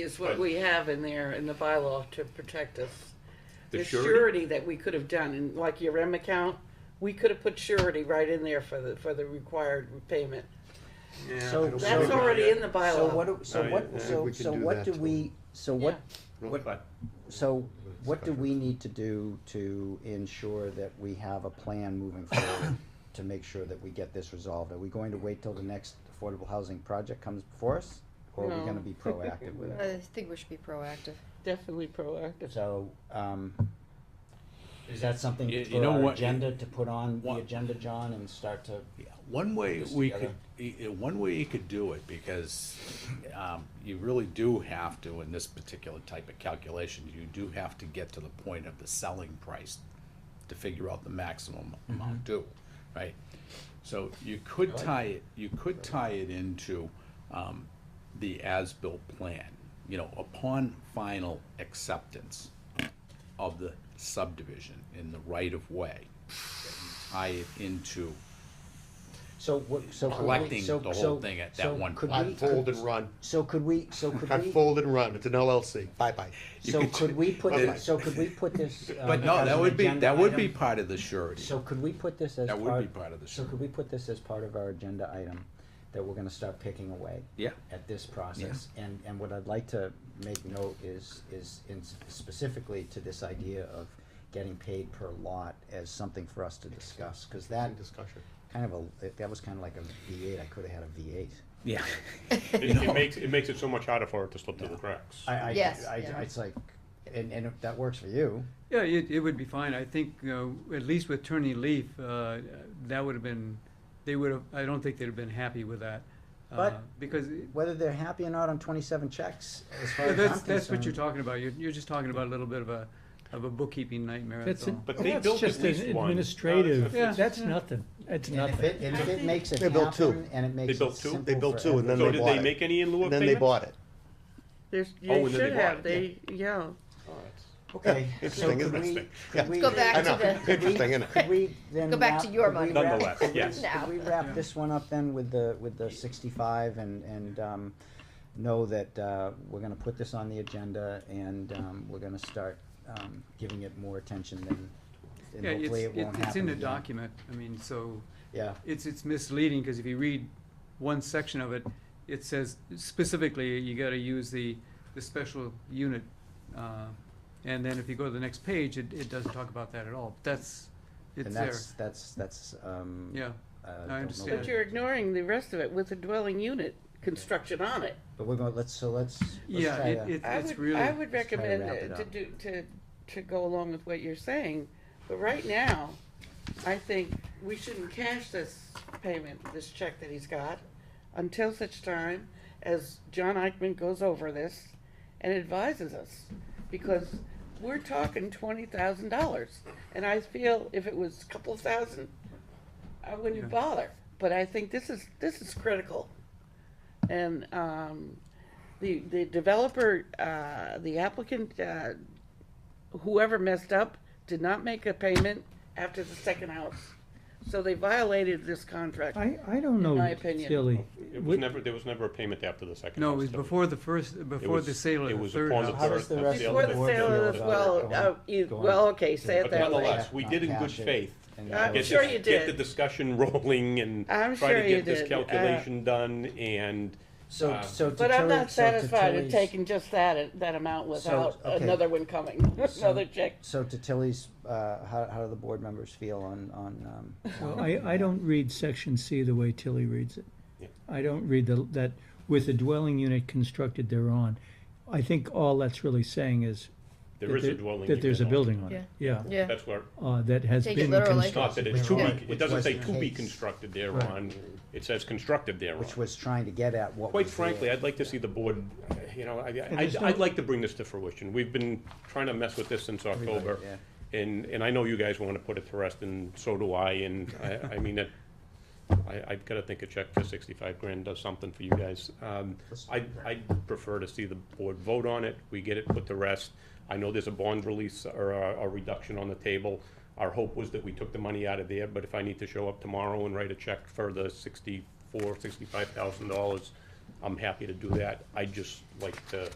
is what But- we have in there in the bylaw to protect us. The The surety? surety that we could have done, and like your REM account, we could have put surety right in there for the, for the required repayment. Yeah, So- I don't That's know. already in the So what, bylaw. do- so No, yeah, what, yeah. so, We can so do what that do too. we, so Yeah. what, But so what do we need to do to ensure that we have a plan moving forward to make sure that we get this resolved? Are we going to wait till the next affordable housing project comes before us? Or are we No. gonna be proactive with it? I think we should be proactive. Definitely proactive. So, um, is that something You- you for know our what? agenda to put on the What- agenda, John, and start to? One way Just we could, together. y- y- one way you could do it, because um, you really do have to, in this particular type of calculation, you do have to get to the point of the selling price to figure out the maximum Mm-hmm. amount due, right? So you could tie it, you could tie it into um, the as-built plan, you know, upon final acceptance of the subdivision in the right-of-way, tie it into So what, so. could we- Collecting so- the whole so- thing at that so one could point. we- I fold and run. So could we, so could we? I fold and run. It's an LLC. Bye bye. So could could we put, Okay. thi- so could we put this? um, But no, as that an would be, agenda that would be item? part of the surety. So could we put this as That part? would be part of the So could we put this as part of our agenda item that we're gonna start picking away? Yeah. At this process? And, and what I'd like to make note is, is in s- specifically to this idea of getting paid per lot as something for us to discuss, cause that In discussion. kind of a, that was kind of like a V eight, I could've had a V eight. Yeah. it, it makes it makes it so much harder for it to slip through the cracks. I, I, Yes, I, yeah. it's like, and, and if that works for you, Yeah, it, it would be fine. I think, uh, at least with Attorney Leaf, uh, that would have been, they would have, I don't think they'd have been happy with that. uh, But- Because, it- whether they're happy or not on twenty-seven checks, as far yeah, as I'm that's, that's what you're concerned- talking about. You're, you're just talking about a little bit of a, of a bookkeeping nightmare, that's That's all. an, Oh, But they that's built just at least an one. Uh, administrative. it's- Yeah. That's nothing. It's And if nothing. it, and if it makes it They built two. happen, and it makes built it two. simple They built for two, and then So everyone- they did bought they it. make any in lieu of And then they payment? bought it. There's, Oh, and you then they should bought have, it, they, yeah. Oh, that's- Okay, so Interesting, could isn't we, it? Yeah. could we? Go back I to know. the- Interesting, isn't it? Could we then? Go back wrap- to your could we money. wrap- Nonetheless, could we- yes. Now. Could we wrap Yeah. this one up then with the, with the sixty-five and, and, um, know that, uh, we're gonna put this on the agenda and, um, we're gonna start, um, giving it more attention than, and Yeah, it's, hopefully it won't it- happen. it's in the again. document. I mean, so, Yeah, it's, it's misleading, because if you read one section of it, it says specifically, you gotta use the, the special unit. uh, And then if you go to the next page, it, it doesn't talk about that at all. That's, it's and there, that's, that's, that's, um. yeah. uh, I don't know understand. what- But you're ignoring the rest of it with the dwelling unit construction on it. But we're going, let's, so let's, let's Yeah, try it, to, it- I it's would, really. I would let's try to recommend wrap uh, it to up. do, to, to go along with what you're saying, but right now, I think we shouldn't cash this payment, this check that he's got, until such time as John Eichman goes over this and advises us, because we're talking twenty thousand dollars, and I feel if it was a couple thousand, I wouldn't Yeah. bother, but I think this is, this is critical. And, um, the, the developer, uh, the applicant, uh, whoever messed up did not make a payment after the second house. So they violated this contract. I, I don't know, my opinion. Tilly. It was What- never there was never a payment after the second. No, it house, was though. before the first, before was- the sale it of the was third upon the how house. does the Before rest of Before the the board sale feel of, about well, going- uh, you- going- well, okay, say it But that way. nonetheless, we did in Not good cash it. faith. And I'm that was- sure this- you Get the did. discussion rolling and I'm try sure to you get this did, uh, calculation done and So, Uh, so to But I'm Tilly- not so to satisfied with Tilly's- taking just that, that amount without okay. another one coming, So- another check. So to Tilly's, uh, how, how do the board members feel on, on, um, Well, I, I don't read section C the way Tilly reads it. I don't read the, that with the dwelling unit constructed thereon. I think all that's really saying is. there that is a there- dwelling. That there's a unit building on it, yeah, Yeah. That's where, uh, that has Take been it literally. constructed. not that it's to Which be, it was doesn't say the to be case. constructed thereon, it says constructed thereon. which was trying to get at what Quite was frankly, there. I'd like to see the board, uh, you know, I, there's I'd, no- I'd like to bring this to fruition. We've been trying to mess with this since October. And, and I know you guys wanna put it to rest, and so do I, and I, I mean, it- I, I've gotta think a check for sixty-five grand does something for you guys. Um, I, I'd prefer to see the board vote on it, we get it put to rest. I know there's a bond release or a, a reduction on the table. Our hope was that we took the money out of there, but if I need to show up tomorrow and write a check for the sixty-four, sixty-five thousand dollars, I'm happy to do that. I'd just like to